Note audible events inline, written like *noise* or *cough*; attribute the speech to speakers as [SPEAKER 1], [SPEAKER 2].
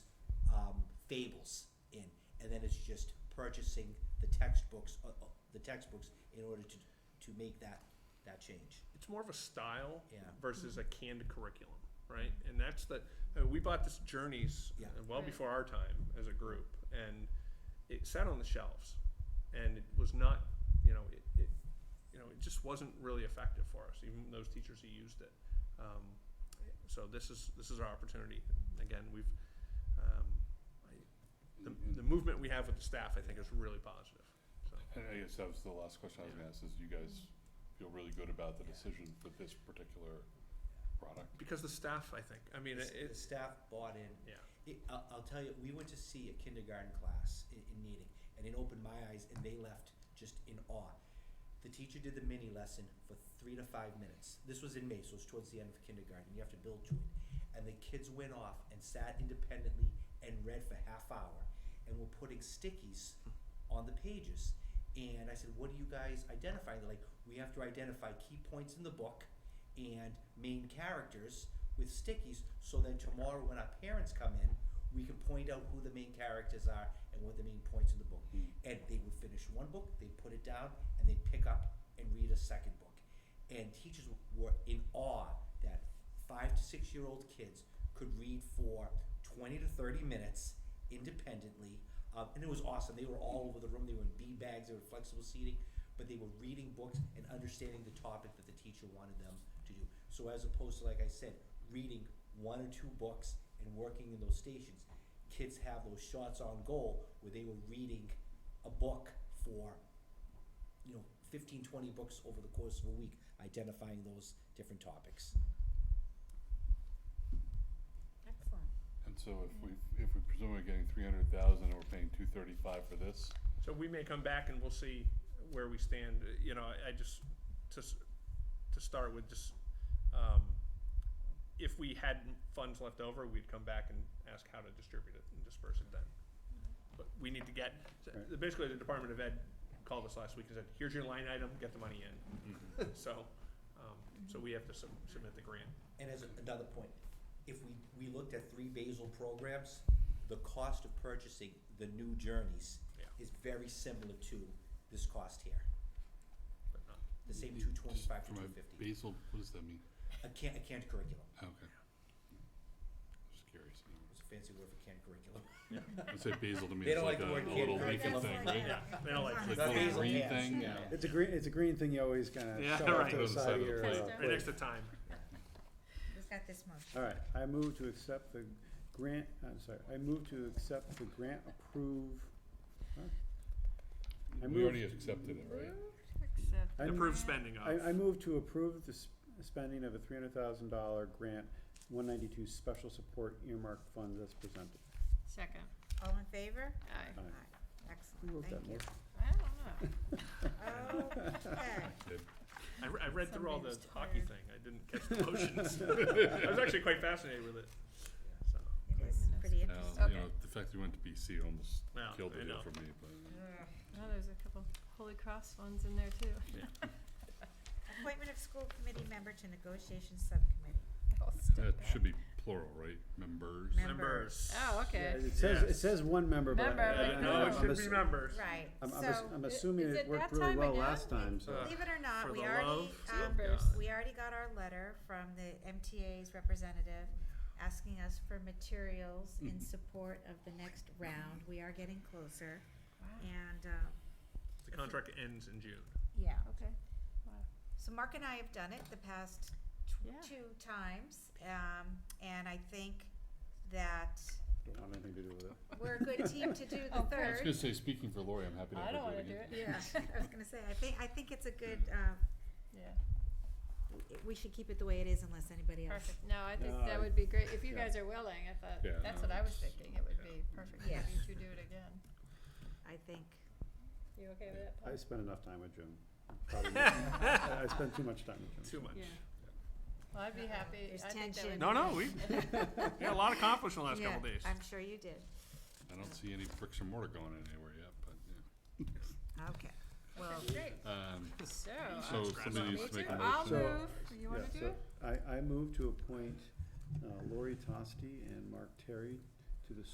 [SPEAKER 1] um, fables in, and then it's just purchasing the textbooks, uh, uh, the textbooks in order to, to make that, that change.
[SPEAKER 2] it's more of a style
[SPEAKER 1] Yeah.
[SPEAKER 2] versus a canned curriculum, right? And that's the uh, we bought this Journeys
[SPEAKER 1] Yeah.
[SPEAKER 2] uh, well
[SPEAKER 3] Right.
[SPEAKER 2] before our time as a group, and it sat on the shelves, and it was not, you know, it, it you know, it just wasn't really effective for us, even those teachers who used it. Um, so this is this is our opportunity. Again, we've um, I, the, the movement we have with the staff, I think, is really positive. So.
[SPEAKER 4] And I guess that was the last question I was gonna ask, is you guys feel really good about the decision for this particular product?
[SPEAKER 2] Because the staff, I think, I mean,
[SPEAKER 1] The s-
[SPEAKER 2] it,
[SPEAKER 1] The
[SPEAKER 2] it's
[SPEAKER 1] staff bought in,
[SPEAKER 2] yeah,
[SPEAKER 1] It, I'll, I'll tell you, we went to see a kindergarten class in, in Needing, and it opened my eyes, and they left just in awe. The teacher did the mini lesson for three to five minutes. This was in May, so it's towards the end of kindergarten. You have to build to it. And the kids went off and sat independently and read for half hour, and were putting stickies on the pages. And I said, "What do you guys identify?" They're like, "We have to identify key points in the book." and main characters with stickies so that tomorrow when our parents come in, we can point out who the main characters are and what the main points in the book.
[SPEAKER 4] Hmm.
[SPEAKER 1] And they would finish one book, they'd put it down, and they'd pick up and read a second book. And teachers were in awe that five to six year old kids could read for 20 to 30 minutes independently. Um, and it was awesome. They were all over the room, they were in bean bags, they were flexible seating but they were reading books and understanding the topic that the teacher wanted them to do. So as opposed to, like I said, reading one or two books and working in those stations, kids have those shots on goal where they were reading a book for, you know, 15, 20 books over the course of a week, identifying those different topics.
[SPEAKER 3] Excellent.
[SPEAKER 4] And so if we, if we presume we're getting three hundred thousand and we're paying two thirty-five for this,
[SPEAKER 2] So we may come back and we'll see where we stand, Uh, you know, I, I just, to, s- to start with, just, um, if we had m- funds left over, we'd come back and ask how to distribute it and disperse it then. But we need to get, so
[SPEAKER 4] Right.
[SPEAKER 2] basically, the Department of Ed called us last week and said, here's your line item, get the money in, so, um, so we have to sub- submit the grant.
[SPEAKER 1] And as another point, if we, we looked at three basal programs, the cost of purchasing the new journeys
[SPEAKER 2] Yeah.
[SPEAKER 1] is very similar to this cost here.
[SPEAKER 2] But not-
[SPEAKER 1] The same
[SPEAKER 4] Mm,
[SPEAKER 1] two twenty-five to
[SPEAKER 4] just from
[SPEAKER 1] two
[SPEAKER 4] a
[SPEAKER 1] fifty.
[SPEAKER 4] Basal, what does that mean?
[SPEAKER 1] A can, a canned curriculum.
[SPEAKER 4] Oh, Okay. Just curious.
[SPEAKER 1] It's a fancy word for canned curriculum.
[SPEAKER 4] I say basal to me,
[SPEAKER 1] *laughs* They
[SPEAKER 4] it's
[SPEAKER 1] don't
[SPEAKER 4] like
[SPEAKER 1] like the
[SPEAKER 4] a a
[SPEAKER 1] word
[SPEAKER 4] little
[SPEAKER 1] kid.
[SPEAKER 4] leafy
[SPEAKER 1] That's
[SPEAKER 4] thing,
[SPEAKER 1] like-
[SPEAKER 4] right?
[SPEAKER 2] They don't like to-
[SPEAKER 4] It's Like a little
[SPEAKER 1] Basil
[SPEAKER 4] green
[SPEAKER 1] cans,
[SPEAKER 4] thing,
[SPEAKER 1] yeah.
[SPEAKER 5] It's a green, it's a green thing you always kind
[SPEAKER 2] Yeah,
[SPEAKER 5] of shove off
[SPEAKER 2] right.
[SPEAKER 5] to the side of your. uh,
[SPEAKER 3] Tester.
[SPEAKER 2] right next to time.
[SPEAKER 3] Who's got this motion?
[SPEAKER 5] All right, I move to accept the grant, I'm sorry, I move to accept the grant approve. huh? I
[SPEAKER 4] We
[SPEAKER 5] move-
[SPEAKER 4] already accepted it, right?
[SPEAKER 5] I
[SPEAKER 2] Approved spending
[SPEAKER 5] I, I
[SPEAKER 2] of,
[SPEAKER 5] move to approve the sp- spending of a three hundred thousand dollar grant, one ninety-two special support earmarked funds as presented.
[SPEAKER 6] Second.
[SPEAKER 3] All in favor?
[SPEAKER 6] Aye.
[SPEAKER 5] Aye.
[SPEAKER 3] Excellent,
[SPEAKER 5] Who wrote that
[SPEAKER 3] thank you.
[SPEAKER 5] motion?
[SPEAKER 6] I don't know.
[SPEAKER 3] Okay,
[SPEAKER 4] uh,
[SPEAKER 2] I, re- I read through all the
[SPEAKER 3] Somebody's
[SPEAKER 2] hockey
[SPEAKER 3] tired.
[SPEAKER 2] thing, I didn't catch the motions. *laughs* I was actually quite fascinated with it, so.
[SPEAKER 3] it is pretty
[SPEAKER 4] Now,
[SPEAKER 3] interesting.
[SPEAKER 4] you
[SPEAKER 6] Okay.
[SPEAKER 4] know, the fact that we went to BC almost
[SPEAKER 2] Well,
[SPEAKER 4] killed
[SPEAKER 2] I
[SPEAKER 4] it
[SPEAKER 2] know.
[SPEAKER 4] for me, but.
[SPEAKER 6] No, Oh, there's a couple Holy Cross ones in there *laughs* too.
[SPEAKER 3] Appointment of school committee member to negotiation subcommittee.
[SPEAKER 4] That should be plural, right? Members?
[SPEAKER 3] Mem-
[SPEAKER 2] Members.
[SPEAKER 6] Oh, okay.
[SPEAKER 5] Yeah, It says, it
[SPEAKER 2] Yes.
[SPEAKER 5] says one member, but. I-
[SPEAKER 6] Member,
[SPEAKER 5] I-
[SPEAKER 6] but
[SPEAKER 5] I-
[SPEAKER 2] Uh, No,
[SPEAKER 5] I'm
[SPEAKER 2] it should
[SPEAKER 5] ass-
[SPEAKER 2] be members.
[SPEAKER 3] Right,
[SPEAKER 5] I'm, I'm, ass-
[SPEAKER 3] so,
[SPEAKER 5] I'm
[SPEAKER 6] i-
[SPEAKER 5] assuming
[SPEAKER 6] is
[SPEAKER 5] it
[SPEAKER 6] it
[SPEAKER 5] worked
[SPEAKER 6] that
[SPEAKER 5] really
[SPEAKER 6] time
[SPEAKER 5] well
[SPEAKER 6] again?
[SPEAKER 5] last time, so.
[SPEAKER 2] Uh,
[SPEAKER 3] believe it or
[SPEAKER 2] for
[SPEAKER 3] not, we
[SPEAKER 2] the
[SPEAKER 3] already,
[SPEAKER 2] love
[SPEAKER 3] um,
[SPEAKER 2] of God.
[SPEAKER 3] we already got our letter from the MTA's representative asking us for materials
[SPEAKER 5] Mm-hmm.
[SPEAKER 3] in support of the next round. We are getting closer and, uh,
[SPEAKER 2] The contract ends in June.
[SPEAKER 3] yeah.
[SPEAKER 6] Okay.
[SPEAKER 3] So Mark and I have done it the past
[SPEAKER 6] Yeah.
[SPEAKER 3] tw- two times, um, and I think that
[SPEAKER 5] Don't want anything to do with it.
[SPEAKER 3] we're a good team to do
[SPEAKER 6] *laughs*
[SPEAKER 3] the
[SPEAKER 6] Of course.
[SPEAKER 4] I was
[SPEAKER 3] third.
[SPEAKER 4] gonna say, speaking for Lori, I'm happy to
[SPEAKER 6] I
[SPEAKER 4] have her
[SPEAKER 6] don't
[SPEAKER 4] do
[SPEAKER 6] wanna
[SPEAKER 4] it
[SPEAKER 6] do
[SPEAKER 4] again.
[SPEAKER 6] it.
[SPEAKER 3] *laughs* Yeah,
[SPEAKER 6] *laughs*
[SPEAKER 3] I was gonna say, I think, I think it's a good, uh,
[SPEAKER 6] Yeah.
[SPEAKER 3] w- we should keep it the way it is unless anybody else.
[SPEAKER 6] Perfect. No, I think
[SPEAKER 5] No, I-
[SPEAKER 6] that would be great. If you
[SPEAKER 5] yeah.
[SPEAKER 6] guys are willing, I thought,
[SPEAKER 4] Yeah.
[SPEAKER 6] that's what I was thinking. It would be perfect for
[SPEAKER 3] Yeah.
[SPEAKER 6] you to do it again.
[SPEAKER 3] I think,
[SPEAKER 6] You okay with that, Paul?
[SPEAKER 5] I spent enough time with Jim. Probably- I I spent too much time with Jim.
[SPEAKER 2] Too much.
[SPEAKER 6] Yeah. Well, I'd be happy.
[SPEAKER 3] There's
[SPEAKER 6] I think that
[SPEAKER 3] tension.
[SPEAKER 6] would be
[SPEAKER 2] No, no,
[SPEAKER 6] nice.
[SPEAKER 2] we,
[SPEAKER 6] *laughs*
[SPEAKER 4] *laughs*
[SPEAKER 2] we had a lot accomplished in the last
[SPEAKER 3] yeah,
[SPEAKER 2] couple days.
[SPEAKER 3] I'm sure you did.
[SPEAKER 4] *laughs* I don't see any bricks and mortar going anywhere yet, but, yeah.
[SPEAKER 3] Okay. Well,
[SPEAKER 6] Okay, great.
[SPEAKER 4] Um,
[SPEAKER 6] So,
[SPEAKER 4] so
[SPEAKER 6] I'll-
[SPEAKER 2] scratch
[SPEAKER 4] somebody
[SPEAKER 2] that.
[SPEAKER 4] needs to make a
[SPEAKER 6] Oh, I'll
[SPEAKER 4] motion.
[SPEAKER 5] So- uh,
[SPEAKER 6] move. You wanna
[SPEAKER 5] Yeah,
[SPEAKER 6] do
[SPEAKER 5] so
[SPEAKER 6] it?
[SPEAKER 5] I, I move to appoint uh, Lori Tosti and Mark Terry